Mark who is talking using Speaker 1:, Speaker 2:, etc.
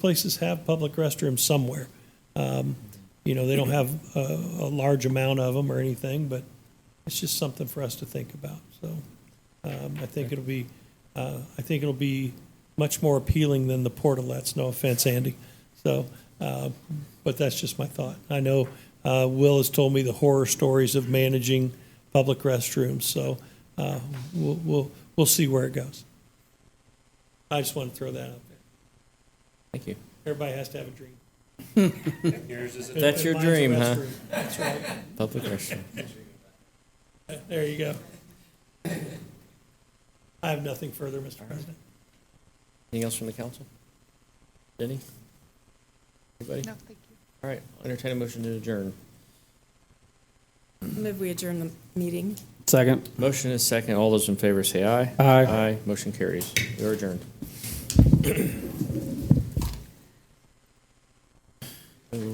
Speaker 1: places have public restrooms somewhere. Um, You know, they don't have a, a large amount of them or anything, but it's just something for us to think about, so. um, I think it'll be, uh, I think it'll be much more appealing than the portalettes, no offense, Andy. So, uh, but that's just my thought. I know uh, Will has told me the horror stories of managing public restrooms, so uh, we'll, we'll, we'll see where it goes. I just want to throw that out there.
Speaker 2: Thank you.
Speaker 1: Everybody has to have a dream.
Speaker 3: Yours is a
Speaker 2: That's your
Speaker 1: Mine's a
Speaker 2: dream, huh?
Speaker 1: restroom. That's right.
Speaker 2: Public restroom.
Speaker 1: There you go. I have nothing further, Mr. President.
Speaker 2: Anything else from the council? Denny? Anybody?
Speaker 4: No, thank you.
Speaker 2: All right, I'll entertain a motion to adjourn.
Speaker 5: Move we adjourn the meeting.
Speaker 6: Second.
Speaker 2: Motion is second. All those in favor say aye.
Speaker 6: Aye.
Speaker 2: Aye. Motion carries. We are adjourned.